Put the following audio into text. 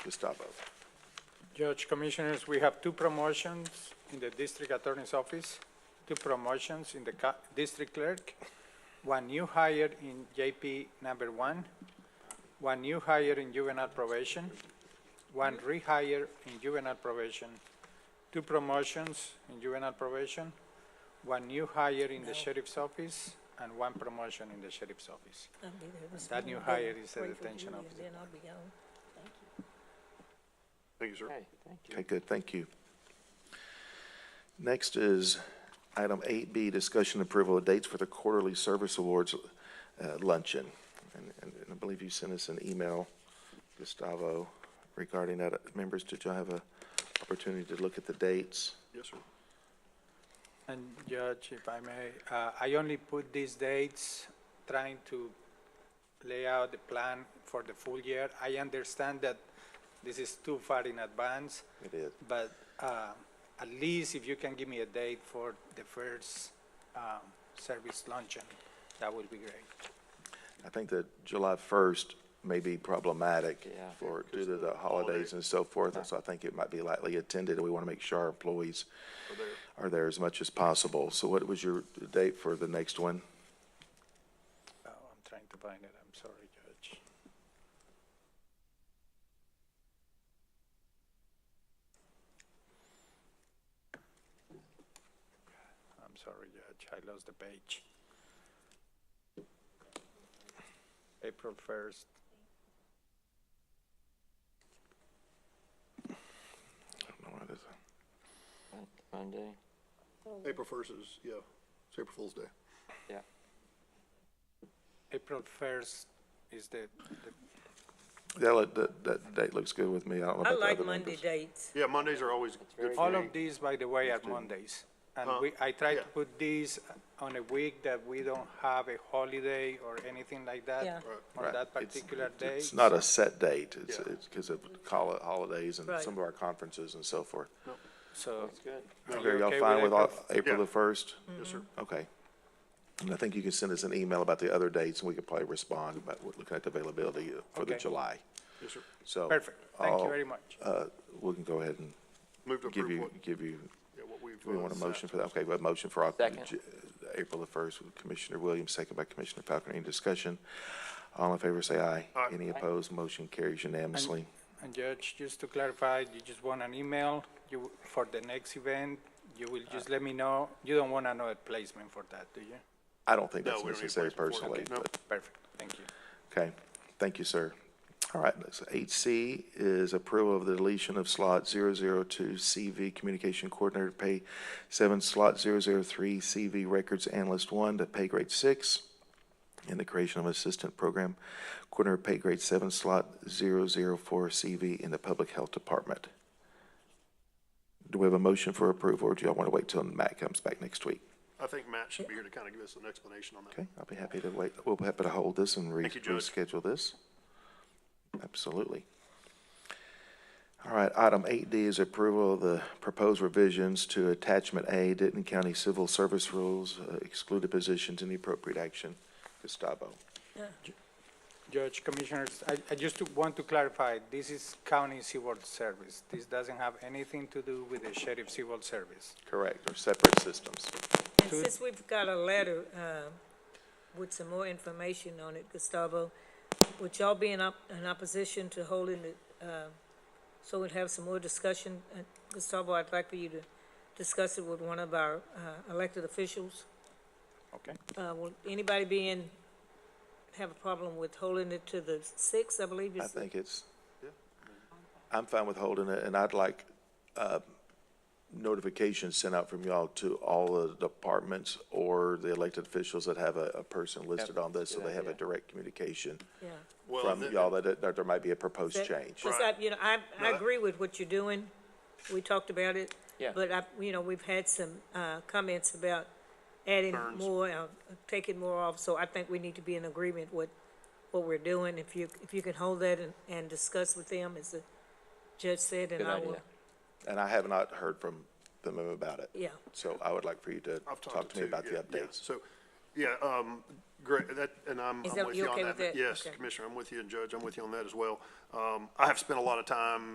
Gustavo. Judge Commissioners, we have two promotions in the District Attorney's Office, two promotions in the ca- District Clerk, one new hire in JP number one, one new hire in juvenile probation, one rehire in juvenile probation, two promotions in juvenile probation, one new hire in the Sheriff's Office, and one promotion in the Sheriff's Office. I'll be there this That new morning, hire then is a wait for detention Julia, officer. Then I'll be gone. Thank you, sir. Okay, thank you. Okay, good, thank you. Next is item eight B, discussion approval of dates for the quarterly service awards uh, luncheon. And, and and I believe you sent us an email, Gustavo, regarding that. Members, did y'all have a opportunity to look at the dates? Yes, sir. And Judge, if I may, uh, I only put these dates trying to lay out the plan for the full year. I understand that this is too far in advance, It is. but uh, at least if you can give me a date for the first um, service luncheon, that would be great. I think that July first may be problematic Yeah. for, due to the holidays and so forth, and so I think it might be lightly attended, and we want to make sure our employees are there as much as possible. So what was your date for the next one? Oh, I'm trying to find it, I'm sorry, Judge. I'm sorry, Judge, I lost the page. April 1st, I don't know what it is. Mon- Monday, April first is, yeah, it's April Fool's Day. yeah. April 1st is the, the- Yeah, that, that, that date looks good with me. I don't know I about the like other Monday members. dates. Yeah, Mondays are always good for all me. of these, by the way, are Mondays. And we, I try to Yeah. put these on a week that we don't have a holiday or anything like Yeah. that on Right. that It's- particular day. It's not a set date. It's, Yeah. it's because of call it holidays and Right. some of our conferences and so forth. So That's good. Are Okay, you y'all okay fine with with all- April April Yeah. the first? Yes, sir. Okay. And I think you can send us an email about the other dates, and we could probably respond about what- looking at the availability for the Okay. July. Yes, sir. So. Perfect. Thank you I'll- very much. Uh, we can go ahead and Move to give approve you, what, give you, yeah, what we've. do we uh, want a set. motion for that? Okay, we have a motion for Oc- Second. J- April the first, with Commissioner Williams, second by Commissioner Falconer. Any discussion? All in favor, say aye. Aye. Any opposed? Motion carries unanimously. And Judge, just to clarify, you just want an email, you, for the next event, you will just let me know, you don't want another placement for that, do you? I don't think No, that's we don't need necessary a place for it. personally, No. but Perfect, thank you. Okay, thank you, sir. All right, next, eight C is approval of the deletion of slot 002 CV Communication Coordinator, pay seven, slot 003 CV Records Analyst one to pay grade six, and the creation of Assistant Program Coordinator, pay grade seven, slot 004 CV in the Public Health Department. Do we have a motion for approval, or do y'all want to wait till Matt comes back next week? I think Matt should be here to kind of give us an explanation on that. Okay, I'll be happy to wait. We'll be happy to hold this and re- Thank you, Judge. reschedule this. Absolutely. All right, item eight D is approval of the proposed revisions to attachment A, Denton County Civil Service Rules, uh, excluded positions, any appropriate action. Gustavo. Judge, Commissioners, I, I just want to clarify, this is county civil service. This doesn't have anything to do with the sheriff civil service. Correct, or separate systems. And Good. since we've got a letter, um, with some more information on it, Gustavo, would y'all be in op, in opposition to holding it, uh, so we'd have some more discussion? Uh, Gustavo, I'd like for you to discuss it with one of our, uh, elected officials. Okay. Uh, will anybody be in, have a problem with holding it to the sixth, I believe I is the think it's, I'm fine with holding it, and I'd like uh, notifications sent out from y'all to all the departments or the elected officials that have a, a person listed on this, so they have a direct communication Yeah. Well, from then- y'all that, it- that there might be a proposed That- change. Because Right. I, you know, I, I that- agree with what you're doing. We talked about it. Yeah. But I, you know, we've had some, uh, comments about adding Concerns. more, uh, taking more off, so I think we need to be in agreement with what we're doing. If you, if you can hold that and, and discuss with them, as the judge said, and Good I will, idea. And I have not heard from them about it. yeah. So I would like for you to I've talk to me two, about the yeah, yeah. updates. So Yeah, um, great, that, and I'm, Is I'm that- with you you on okay that. with that? Yes, Okay. Commissioner, I'm with you, and Judge, I'm with you on that as well. Um, I have spent a lot of time